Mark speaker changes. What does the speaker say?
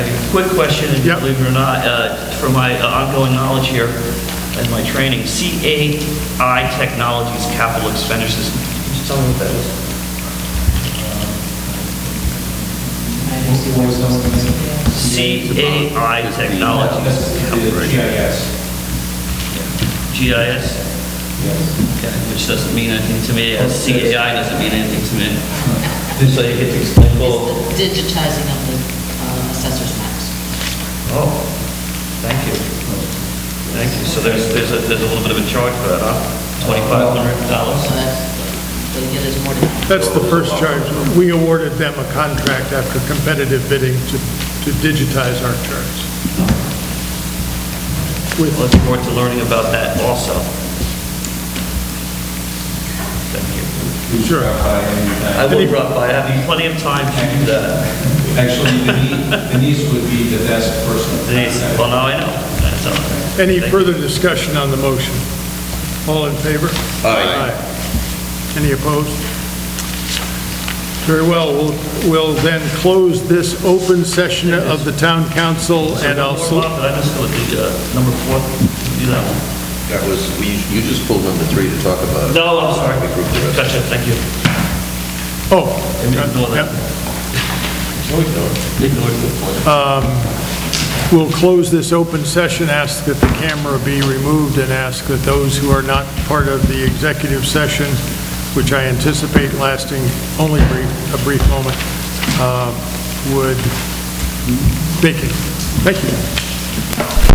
Speaker 1: Quick question, and
Speaker 2: Yep.
Speaker 1: believe it or not, uh, for my uh, ongoing knowledge here and my training, CAI Technologies Capital Expenditures, Can you tell me what that is? CAI Technologies,
Speaker 3: GIS.
Speaker 1: GIS, okay, which doesn't mean anything to me, as CAI doesn't mean anything to me. So you get to explain, well,
Speaker 4: It's the digitizing of the uh, assessor's maps.
Speaker 1: oh, thank you. Thank you, so there's, there's a, there's a little bit of a charge for that, huh? $2,500?
Speaker 4: So that's, they get us more to
Speaker 2: That's the first charge. We awarded them a contract after competitive bidding to to digitize our charts. With
Speaker 1: Look forward to learning about that also. Thank you.
Speaker 2: Sure.
Speaker 1: I will drop by, I have plenty of time to do that.
Speaker 3: uh, Actually, Denise- Denise would be the best person. to
Speaker 1: Denise,
Speaker 3: contact.
Speaker 1: well, now I know. That's all.
Speaker 2: Any
Speaker 1: Thank you.
Speaker 2: further discussion on the motion? All in favor? Aye. Any opposed? Very well, we'll, we'll then close this open session of the town council and I'll,
Speaker 1: One more,
Speaker 2: sel-
Speaker 1: Bob, Did I miss the, uh, number four? Do that one.
Speaker 5: That was, we- you just pulled number three to talk about.
Speaker 1: No, I'm sorry.
Speaker 5: We grouped the rest.
Speaker 1: Gotcha, thank you.
Speaker 2: oh,
Speaker 1: Ignore that. Ignore it.
Speaker 2: we'll close this open session, ask that the camera be removed and ask that those who are not part of the executive session, which I anticipate lasting only brief, a brief moment, uh, would vacate. Thank you.